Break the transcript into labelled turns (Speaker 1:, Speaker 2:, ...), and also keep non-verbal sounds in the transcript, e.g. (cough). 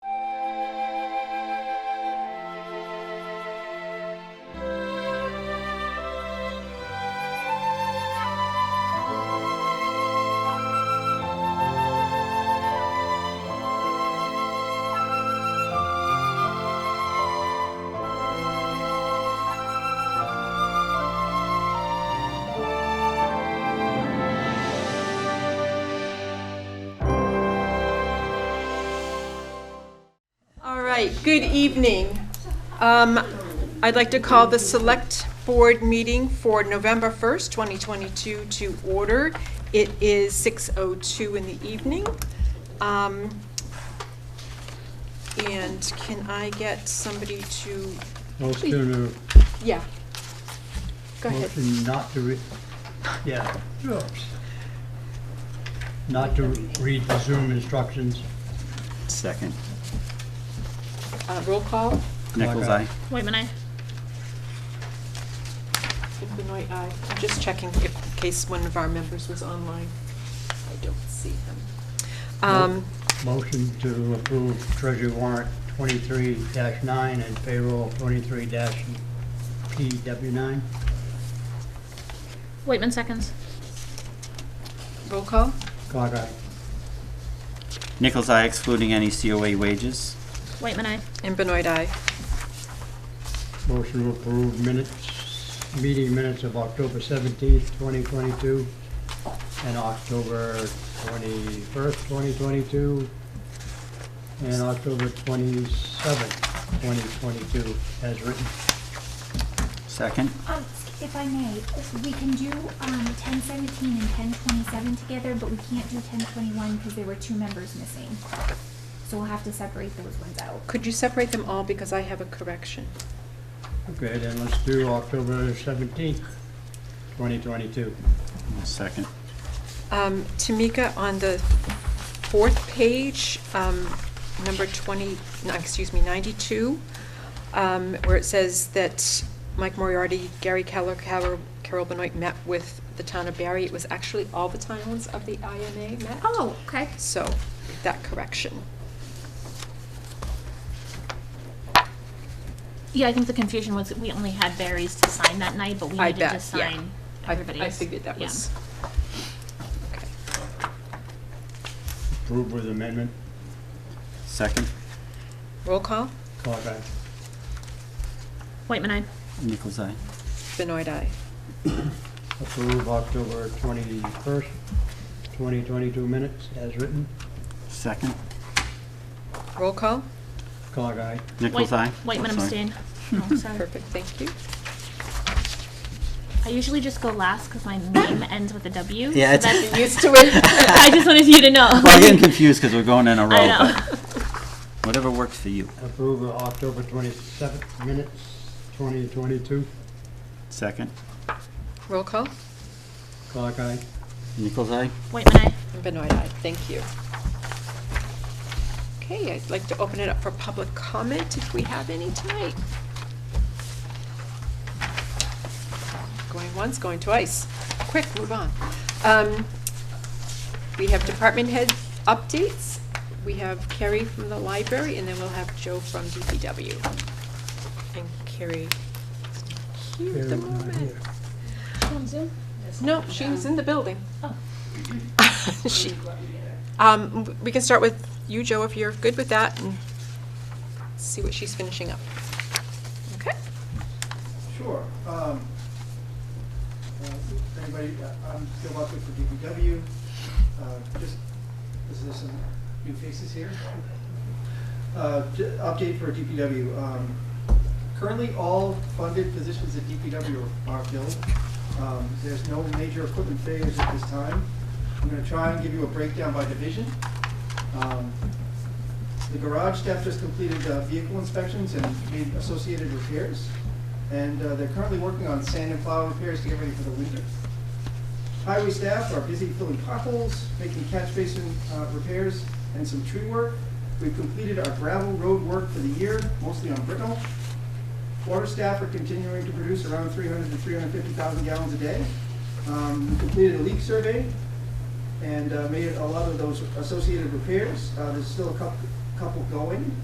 Speaker 1: right, good evening. Um, I'd like to call the Select Board meeting for November 1st, 2022 to order. It is 6:02 in the evening. Um, And can I get somebody to,
Speaker 2: Motion,
Speaker 1: yeah, go
Speaker 2: to
Speaker 1: ahead.
Speaker 2: motion not to read, yeah. oops. Not to read the Zoom instructions.
Speaker 3: Second.
Speaker 1: Uh, Roll call,
Speaker 3: Nichols,
Speaker 2: Black eye.
Speaker 3: aye.
Speaker 4: Waitman, aye.
Speaker 1: Benoit, aye. I'm just checking if, in case one of our members was online. I don't see him. Um,
Speaker 2: Motion to approve treasury warrant twenty-three nine and payroll twenty-three PW nine.
Speaker 4: Waitman seconds.
Speaker 1: Roll call?
Speaker 2: Clock eye.
Speaker 3: Nichols, aye, excluding any COA wages.
Speaker 4: Waitman, aye.
Speaker 1: And Benoit, aye.
Speaker 2: Motion to approve minutes, meeting minutes of October seventeenth, twenty twenty-two, and October twenty-first, twenty twenty-two, and October twenty-seventh, twenty twenty-two, as written.
Speaker 3: Second.
Speaker 5: Um, if I may, we can do, um, ten seventeen and ten twenty-seven together, but we can't do ten twenty-one because there were two members missing. So we'll have to separate those ones out.
Speaker 1: Could you separate them all because I have a correction?
Speaker 2: Okay, then let's do October seventeenth, twenty twenty-two.
Speaker 3: Second.
Speaker 1: Um, Tamika, on the fourth page, um, number 20, no, excuse me, 92, um, where it says that Mike Moriarty, Gary Keller, Carol Carol Benoit met with the town of Barry, it was actually all the towns of the IMA met.
Speaker 5: Oh, okay.
Speaker 1: So, that correction.
Speaker 4: Yeah, I think the confusion was that we only had Barry's to sign that night, but we
Speaker 1: I
Speaker 4: needed
Speaker 1: bet,
Speaker 4: to
Speaker 1: yeah.
Speaker 4: sign
Speaker 1: I-
Speaker 4: everybody's.
Speaker 1: I figured that
Speaker 4: Yeah.
Speaker 1: was. Okay.
Speaker 2: Approve with amendment,
Speaker 3: Second.
Speaker 1: Roll call,
Speaker 2: clock eye.
Speaker 4: Waitman, aye.
Speaker 3: Nichols, aye.
Speaker 1: Benoit, aye.
Speaker 2: Approve October twenty-first, twenty twenty-two minutes, as written,
Speaker 3: Second.
Speaker 1: Roll call?
Speaker 2: clock eye.
Speaker 3: Nichols,
Speaker 4: Wait-
Speaker 3: aye.
Speaker 4: Waitman
Speaker 3: I'm sorry. (laughs)
Speaker 4: abstain. Oh, sorry.
Speaker 1: Perfect, thank you.
Speaker 4: I usually just go last because my name ends with a W.
Speaker 3: Yeah,
Speaker 4: so
Speaker 3: it's- (laughs)
Speaker 4: that's-
Speaker 1: Used to it. (laughs)
Speaker 4: (laughs) I just wanted you to know.
Speaker 3: Well, Oh. I'm getting confused because we're going in a (laughs)
Speaker 4: (laughs) I
Speaker 3: row,
Speaker 4: know.
Speaker 3: but whatever works for you.
Speaker 2: Approve of October 27th minutes, 2022.
Speaker 3: Second.
Speaker 1: Roll call?
Speaker 2: Clock eye.
Speaker 3: Nichols, aye.
Speaker 4: Waitman, aye.
Speaker 1: And Benoit, aye. Thank you. Okay, I'd like to open it up for public comment if we have any tonight. Going once, going twice. Quick, move on. Um, We have department head updates. We have Carrie from the library, and then we'll have Joe from DPW. And Carrie is not here at the
Speaker 2: Carrie's not
Speaker 1: moment.
Speaker 2: here.
Speaker 1: No, she was in the building. (laughs) She- Um, we can start with you, Joe, if you're good with that, and see what she's finishing up. Okay?
Speaker 6: Sure. um, uh, Anybody, uh, I'm Bill Buckley for DPW. Uh, Just, is there some new faces here? Uh, j- Update for DPW. um, Currently, all funded positions at DPW are filled. Um, There's no major equipment failures at this time. I'm going to try and give you a breakdown by division. Um, the garage staff just completed uh, vehicle inspections and made associated repairs, and uh, they're currently working on sand and plow repairs to get ready for the winter. Highway staff are busy filling potholes, making catch basin uh, repairs, and some tree work. We've completed our gravel road work for the year, mostly on Brittle. Water staff are continuing to produce around 300 to 350,000 gallons a day. Um, We completed a leak survey, and uh, made a lot of those associated repairs. Uh, There's still a couple, couple going.